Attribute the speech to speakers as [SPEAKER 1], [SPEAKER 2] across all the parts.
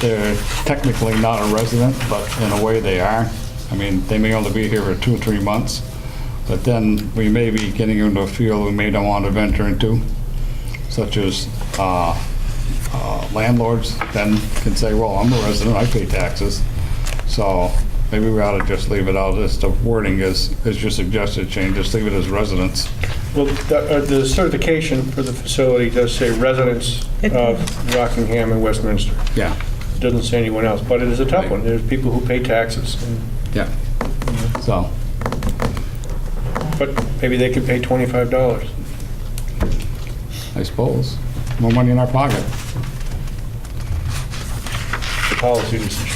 [SPEAKER 1] they're technically not a resident, but in a way they are. I mean, they may only be here for two or three months, but then we may be getting into a field we may not want to venture into, such as uh, uh, landlords then can say, well, I'm a resident, I pay taxes. So maybe we ought to just leave it out, as the wording is, as you suggested, change, just leave it as residents.
[SPEAKER 2] Well, the uh, the certification for the facility does say residents
[SPEAKER 3] It-
[SPEAKER 2] of Rockingham and Westminster.
[SPEAKER 1] Yeah,
[SPEAKER 2] It Doesn't say anyone else, but it is a tough one. There's people who pay taxes, and-
[SPEAKER 1] yeah. So,
[SPEAKER 2] but maybe they could pay $25.
[SPEAKER 1] I suppose, more money in our pocket.
[SPEAKER 2] The policy decision.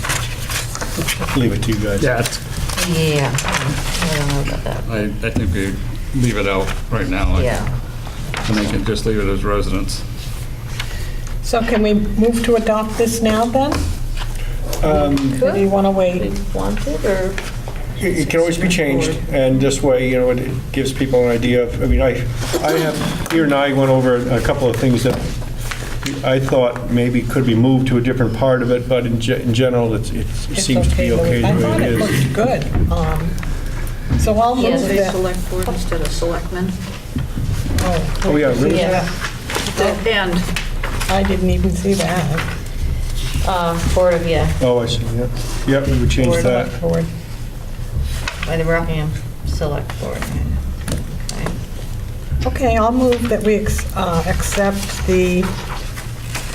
[SPEAKER 2] Leave it to you guys.
[SPEAKER 1] Yeah,
[SPEAKER 3] Yeah, I don't know about that.
[SPEAKER 1] I, I think we leave it out right now.
[SPEAKER 3] Yeah.
[SPEAKER 1] And they can just leave it as residents.
[SPEAKER 4] So can we move to adopt this now then?
[SPEAKER 2] Um,
[SPEAKER 4] Or do you want to
[SPEAKER 3] We
[SPEAKER 4] wait?
[SPEAKER 3] want it, or?
[SPEAKER 2] It it can always be changed, and this way, you know, it gives people an idea of, I mean, I, I have, you and I went over a couple of things that I thought maybe could be moved to a different part of it, but in ge- in general, it's- it's- it
[SPEAKER 4] It's
[SPEAKER 2] seems to be
[SPEAKER 4] the way-
[SPEAKER 2] okay
[SPEAKER 4] I
[SPEAKER 2] the
[SPEAKER 4] thought
[SPEAKER 2] way
[SPEAKER 4] it
[SPEAKER 2] it is.
[SPEAKER 4] looked good. Um, So I'll move
[SPEAKER 3] Yes.
[SPEAKER 5] Say
[SPEAKER 4] that.
[SPEAKER 5] select board instead of selectmen.
[SPEAKER 2] Oh, yeah, really?
[SPEAKER 4] Yeah,
[SPEAKER 3] Oh,
[SPEAKER 5] And
[SPEAKER 4] I didn't even see that.
[SPEAKER 3] Uh, Board of, yeah,
[SPEAKER 2] Oh, I see, yeah. Yep, we would change
[SPEAKER 3] Board.
[SPEAKER 2] that.
[SPEAKER 4] Forward.
[SPEAKER 3] by the Rockingham Select Board. Okay.
[SPEAKER 4] Okay, I'll move that we ex- uh, accept the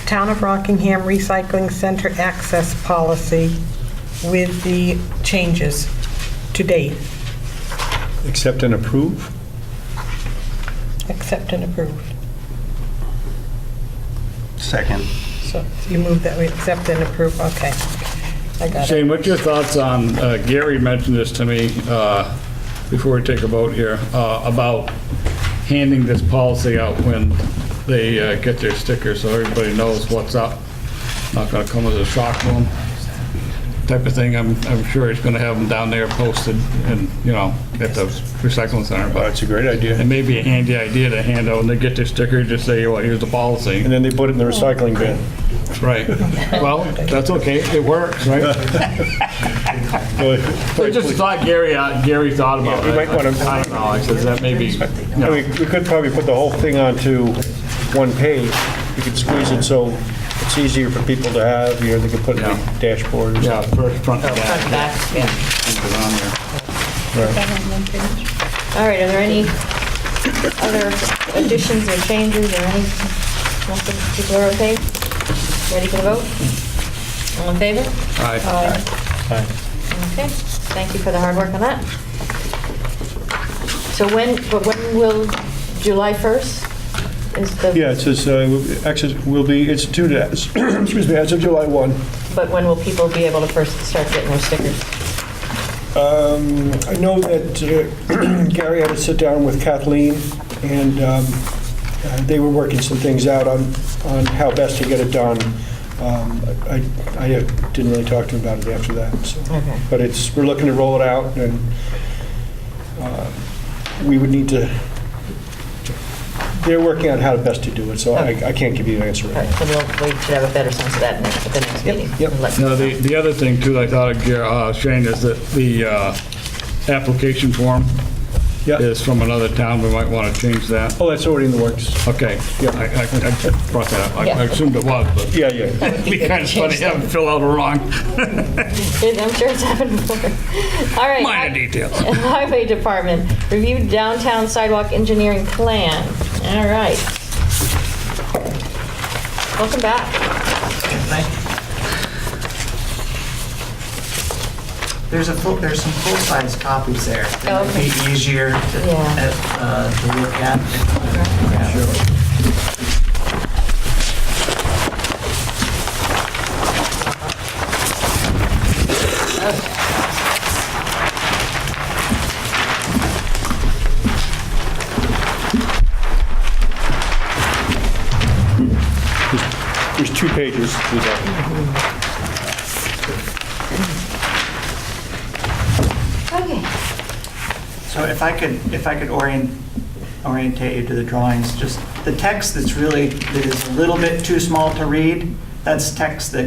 [SPEAKER 4] Town of Rockingham Recycling Center Access Policy with the changes to date,
[SPEAKER 2] Accept and approve?
[SPEAKER 4] accept and approved.
[SPEAKER 6] Second.
[SPEAKER 4] So you move that we accept and approve, okay. I got it.
[SPEAKER 1] Shane, what's your thoughts on, uh, Gary mentioned this to me uh, before we take a vote here, uh, about handing this policy out when they uh, get their sticker, so everybody knows what's up. Not going to come as a shock to 'em type of thing. I'm, I'm sure he's going to have them down there posted and, you know, at the recycling center,
[SPEAKER 2] Oh,
[SPEAKER 1] but
[SPEAKER 2] That's a great
[SPEAKER 1] It
[SPEAKER 2] idea.
[SPEAKER 1] may be a handy idea to hand out, and they get their sticker, just say, well, here's the policy.
[SPEAKER 2] And then they put it in
[SPEAKER 4] Oh,
[SPEAKER 2] the recycling bin.
[SPEAKER 1] Right. Well, that's okay, it works, right? I just thought Gary, uh, Gary thought about
[SPEAKER 2] Yeah,
[SPEAKER 1] it.
[SPEAKER 2] you might wanna-
[SPEAKER 1] I don't know, I says that may be,
[SPEAKER 2] I mean, we could probably put the whole thing onto one page. We could squeeze it so it's easier for people to have, you know, they could put it in the dashboard. or
[SPEAKER 1] yeah,
[SPEAKER 2] something.
[SPEAKER 1] first front and
[SPEAKER 3] Front
[SPEAKER 1] back.
[SPEAKER 3] and back, yeah.
[SPEAKER 1] keep it on there.
[SPEAKER 3] All right, are there any other additions or changes or any, nothing people are okay? Ready for the vote? All in favor?
[SPEAKER 1] Aye.
[SPEAKER 3] Aye.
[SPEAKER 2] Aye.
[SPEAKER 3] Okay, thank you for the hard work on that. So when, but when will, July 1st is the?
[SPEAKER 2] Yeah, it says, uh, access will be instituted, as- excuse me, as of July 1.
[SPEAKER 3] But when will people be able to first start getting their stickers?
[SPEAKER 2] Um, I know that uh, Gary had to sit down with Kathleen, and um, uh, they were working some things out on, on how best to get it done. Um, I, I didn't really talk to him about it after that, so.
[SPEAKER 3] Okay.
[SPEAKER 2] But it's, we're looking to roll it out, and uh, we would need to, they're working on how best to do it, so I I can't give you an answer
[SPEAKER 3] All
[SPEAKER 2] right
[SPEAKER 3] right,
[SPEAKER 2] now.
[SPEAKER 3] so we'll, we should have a better sense of that next, at the next meeting.
[SPEAKER 2] yep.
[SPEAKER 3] And let-
[SPEAKER 1] No, the, the other thing too, I thought of, Gar- uh, Shane, is that the, uh, application form
[SPEAKER 2] Yeah.
[SPEAKER 1] is from another town, we might want to change that.
[SPEAKER 2] Oh, that's already in the works.
[SPEAKER 1] Okay,
[SPEAKER 2] Yeah.
[SPEAKER 1] I, I I brought that up, I I assumed it was, but.
[SPEAKER 2] Yeah, yeah.
[SPEAKER 1] It'd be kind of funny to have them fill out a wrong
[SPEAKER 3] I'm sure it's happened before. All right.
[SPEAKER 1] minor
[SPEAKER 3] hi-
[SPEAKER 1] detail.
[SPEAKER 3] Highway Department, review downtown sidewalk engineering plan. All right. Welcome back.
[SPEAKER 6] There's a full, there's some full-size copies there. It might be easier to
[SPEAKER 3] Yeah.
[SPEAKER 6] uh, to look at.
[SPEAKER 2] There's two pages to that.
[SPEAKER 3] Okay.
[SPEAKER 6] So if I could, if I could orient, orientate you to the drawings, just the text that's really, that is a little bit too small to read, that's text that